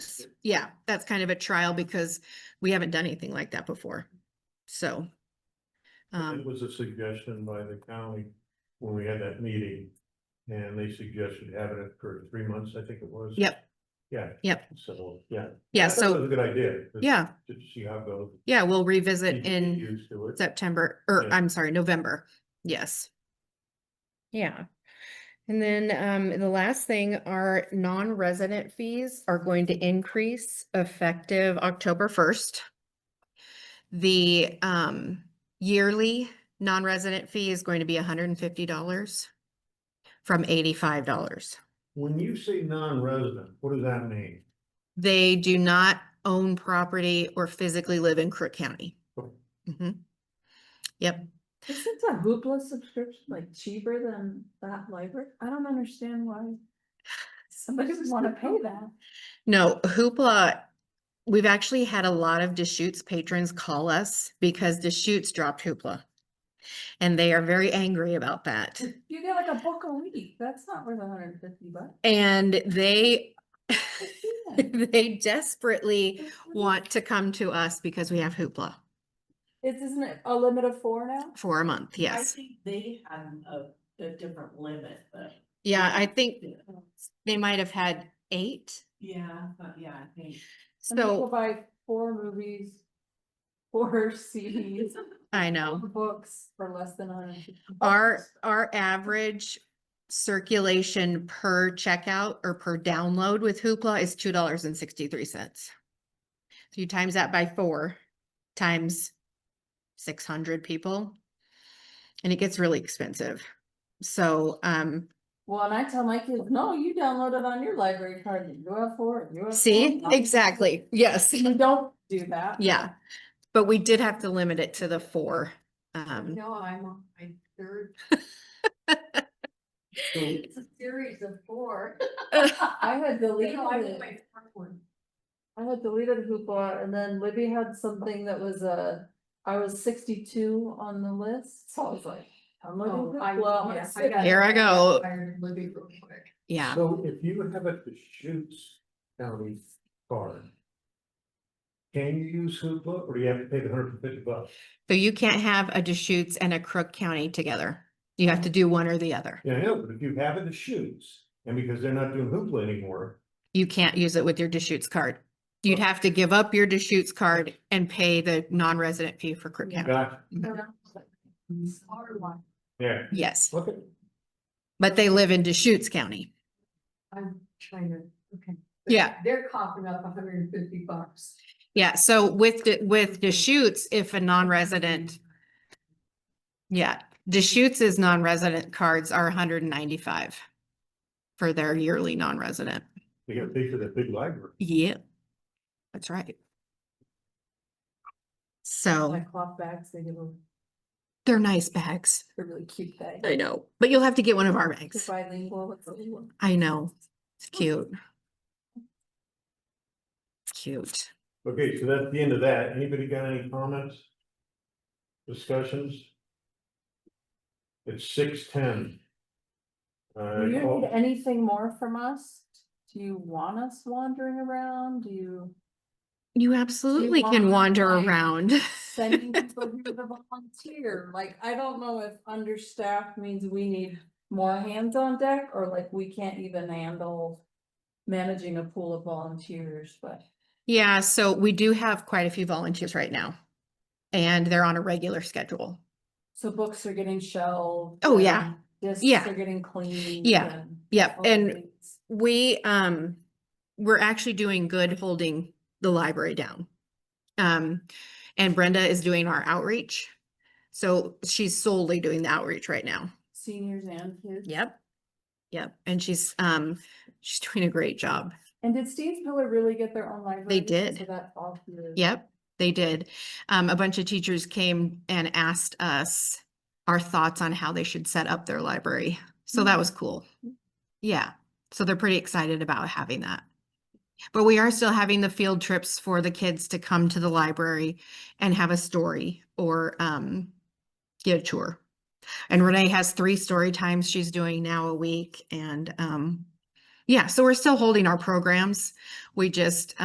that's, yeah, that's kind of a trial because we haven't done anything like that before. So. It Um, was a suggestion by the county when we had that meeting. And they suggested having it for three months, I think it was. Yep. Yeah. Yep. So, yeah. yeah, I thought that so, was a Good idea. to- yeah, To see how it goes. yeah, we'll You revisit get in Used to it. September, or Yeah. I'm sorry, November. Yes. Yeah. And then um, the last thing, our non-resident fees are going to increase effective October first. The um, yearly non-resident fee is going to be hundred and fifty dollars from eighty-five dollars. When you say non-resident, what does that mean? They do not own property or physically live in Crook County. Okay. Mhm. Yep. Isn't a hoopla subscription like cheaper than that library? I don't understand why somebody would wanna pay that. No, Hoopla, we've actually had a lot of Deschutes patrons call us because Deschutes dropped Hoopla. And they are very angry about that. You get like a book a week, that's not worth hundred and fifty bucks. And they, I see that. they desperately It's really- want to come to us because we have Hoopla It's, isn't it a limit of four now? for a month, I yes. think they had a, a different limit, but. Yeah, I think Yeah, they might have had eight. Yeah, but yeah, I think. And So people buy four movies, four CDs, I know. four books for less than hundred and fifty. Our, bucks. our average circulation per checkout or per download with Hoopla is two dollars and sixty-three cents. So you times that by four, times six hundred people. And it gets really expensive. So, um, Well, and I tell my kids, no, you download it on your library card, you have four, you have. four." see, No, exactly, yes, You don't do that. yeah. But we did have to limit it to the four. Um, No, I'm on my third, So it's a series of four. I had deleted No, I'm on it. my fourth one. I had deleted Hoopla and then Libby had something that was uh I was sixty-two on the list, so I was like, I'm Oh, looking I- yeah, I Hoopla. got- Here I go. Tired of living real quick. yeah, So if you have a Deschutes County card. Can you use Hoopla or do you have to pay the hundred and fifty bucks? so you can't have a Deschutes and a Crook County together. You have to do one or the other. Yeah, I know, but if you have a Deschutes and because they're not doing Hoopla anymore, you can't use it with your Deschutes card. You'd have to give up your Deschutes card and pay the non-resident fee for Crook County. gotcha, Smaller one. yeah, Yes, okay. but they live in Deschutes County. I'm trying to, okay. Yeah. They're coughing up hundred and fifty bucks. Yeah, so with, the- with Deschutes, if a non-resident, yeah, Deschutes's non-resident cards are hundred and ninety-five for their yearly non-resident. They gotta pay for that big library. Yeah. That's right. So My cloth bags, they give them, they're nice bags. they're really cute bags. I know. But you'll have to get one of our It's bags. bilingual, it's a little. I know. It's cute. It's Cute. Okay, so that's the end of that. Anybody got any comments? Discussions? It's six ten. Uh, Do you need anything more from us? Do you want us wandering around? Do you You absolutely want can to wander buy- around. send people here to volunteer? Like, I don't know if understaffed means we need more hands on deck or like we can't even handle managing a pool of volunteers, but Yeah, so we do have quite a few volunteers right now. And they're on a regular schedule. so books are getting shelved. Oh, yeah. and Discs Yeah. are getting cleaned. Yeah. and Yep, all the and things. we, um, we're actually doing good holding the library down. Um, and Brenda is doing our outreach. So she's solely doing the outreach right now. Seniors and kids. Yep. Yep, and she's, um, she's doing a great job. And did Steve's Pillar really get their own library? did. So that's all. through- Yep, they did. Um, a bunch of teachers came and asked us our thoughts on how they should set up their library. So that was cool. Yeah, so they're pretty excited about having that. But we are still having the field trips for the kids to come to the library and have a story or um get a tour. And Renee has three story times she's doing now a week and um yeah, so we're still holding our programs. We just